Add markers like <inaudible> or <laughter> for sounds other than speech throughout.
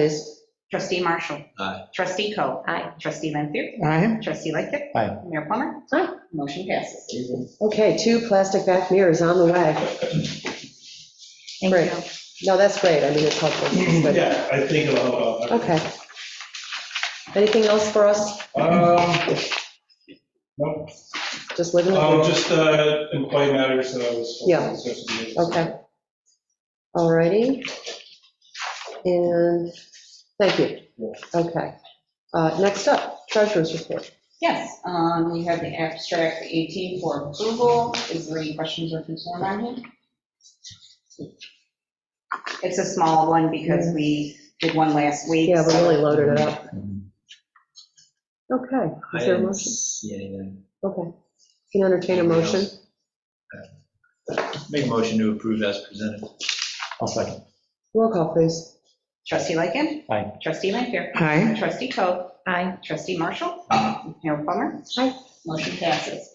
Please. Trustee Marshall. Aye. Trustee Coe. Aye. Trustee Lanfair. Aye. Trustee Lightfoot. Aye. Mayor Plummer. Aye. Motion passes. Okay, two plastic back mirrors on the way. Thank Great. you. No, that's great. I mean, it's helpful. <clears throat> It's good. <laughs> Yeah, I think it'll help out. Okay. Anything else for us? Um, no, Just living? um, it? just, uh, employee matters that I was. Yeah. Okay. All righty. And, thank you. Okay. Uh, Next up, treasurer's report. Yes, um, we have the abstract 18 for approval. Is there any questions or concern on it? It's a small one because we did one last week. Yeah, we so- really loaded it up. Okay. I Is there a didn't motion? see anything. Okay. Can you entertain a motion? Make a motion to approve as presented. I'll second. Roll call, please. Trustee Lightfoot. Aye. Trustee Lanfair. Aye. Trustee Coe. Aye. Trustee Marshall. Aye. Mayor Plummer. Aye. Motion passes.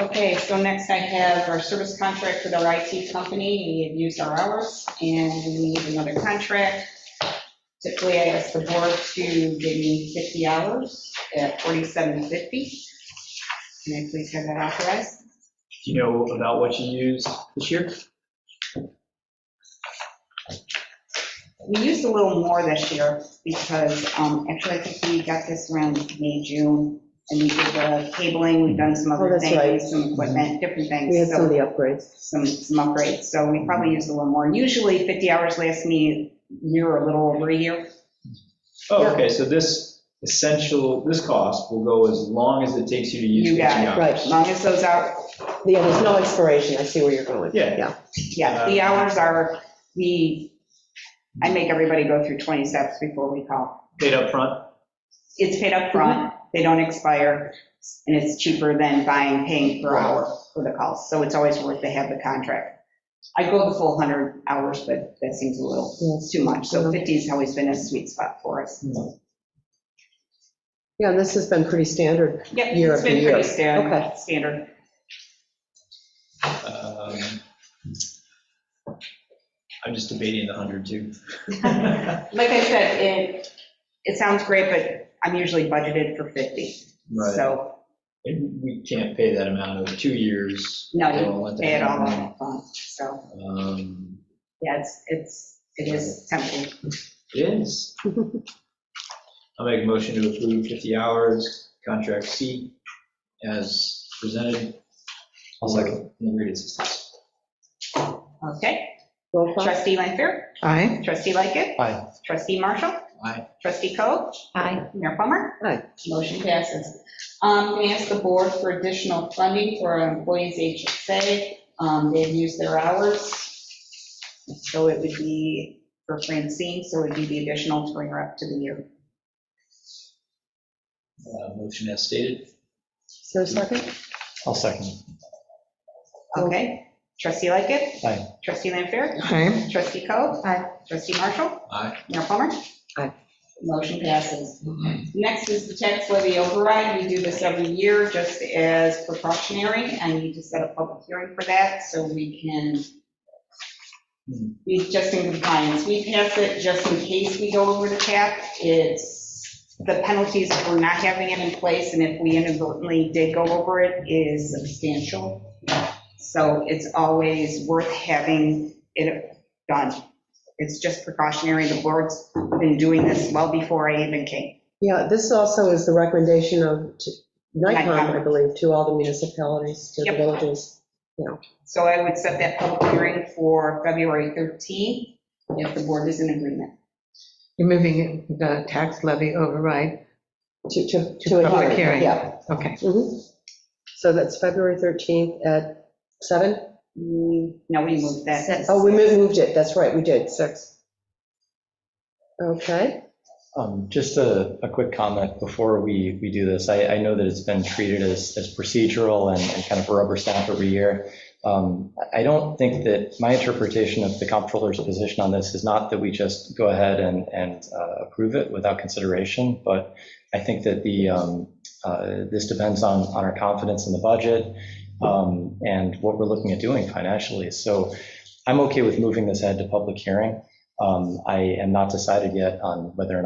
Okay, so next I have our service contract with our IT company. We have used our hours and we need another contract. Typically, I ask the board to give me 50 hours at 47.50. May I please have that authorized? Do you know about what you used this year? We used a little more this year because um, actually I think we got this around May, June. And we did the cabling, we've done some Oh, other that's right. things, some equipment, different things. We had So- some of the upgrades. some, some upgrades, so we probably used a little more. Usually 50 hours lasts me a year or a little over a year. Oh, okay, so this essential, this cost will go as long as it takes you to use You 50 got it. hours. Right. As long as those out, Yeah, there's no expiration. I see where you're going. Yeah. Yeah. yeah, the hours are, the, I make everybody go through 20 steps before we call. Paid up front. It's paid up front. they don't expire, and it's cheaper than buying, paying per hour for the calls. So it's always worth to have the contract. I go the full 100 hours, but that seems a little, it's too much. So Mm-hmm. 50 has always been a sweet spot for us. Yeah, and this has been pretty standard. Yep, Year it's after been year. pretty Okay. standard, standard. Um, I'm just debating the 100 <laughs> too. Right. Like I said, it, it sounds great, but I'm usually budgeted for 50. So, And We can't pay that amount over two years. No, They you won't let that pay it all happen. up front. so, Um, yeah, it's, it's, it is tempting. It is. I'll make a motion to approve 50 hours, contract C, as presented. I'll second. And read it. Okay, Roll call. trustee Lanfair? Aye. Trustee Lightfoot? Aye. Trustee Marshall? Aye. Trustee Coe? Aye. Mayor Plummer? Aye. Motion passes. Um, Can I ask the board for additional funding for our employees' HSA? Um, They've used their hours, so it would be for Francine, so it would be the additional to bring her up to the year. Uh, Motion as stated. Is there a second? I'll second. Okay, trustee Lightgift. Aye. Trustee Lanfair. Aye. Trustee Coe. Aye. Trustee Marshall. Aye. Mayor Plummer. Aye. Motion passes. Next is the tax levy override. We do this every year just as precautionary. I need to set a public hearing for that so we can be just in compliance. We pass it just in case we go over the cap. It's the penalties for not having it in place and if we inadvertently did go over it is substantial. So it's always worth having it done. It's just precautionary. The board's been doing this well before I even came. Yeah, this also is the recommendation of t- NICOM, NICOM. I believe, to all the municipalities, to the Yep. villages. So I would set that public hearing for February 13th if the board is in agreement. You're moving the tax levy override, To, to. To a public hearing. Yeah. okay. Mhm. So that's February 13th at 7? Mm, No, we moved that. Oh, we moved moved it, that's right, we did, 6. Okay, Um, Just a, a quick comment before we, we do this. I, I know that it's been treated as, as procedural and and kind of a rubber stamp every year. Um, I I don't think that, my interpretation of the comptroller's position on this is not that we just go ahead and, and uh, approve it without consideration, but I think that the, um, uh, this depends on, on our confidence in the budget um, and what we're looking at doing financially. So I'm okay with moving this ahead to public hearing. Um, Um, I am not decided yet on whether or not.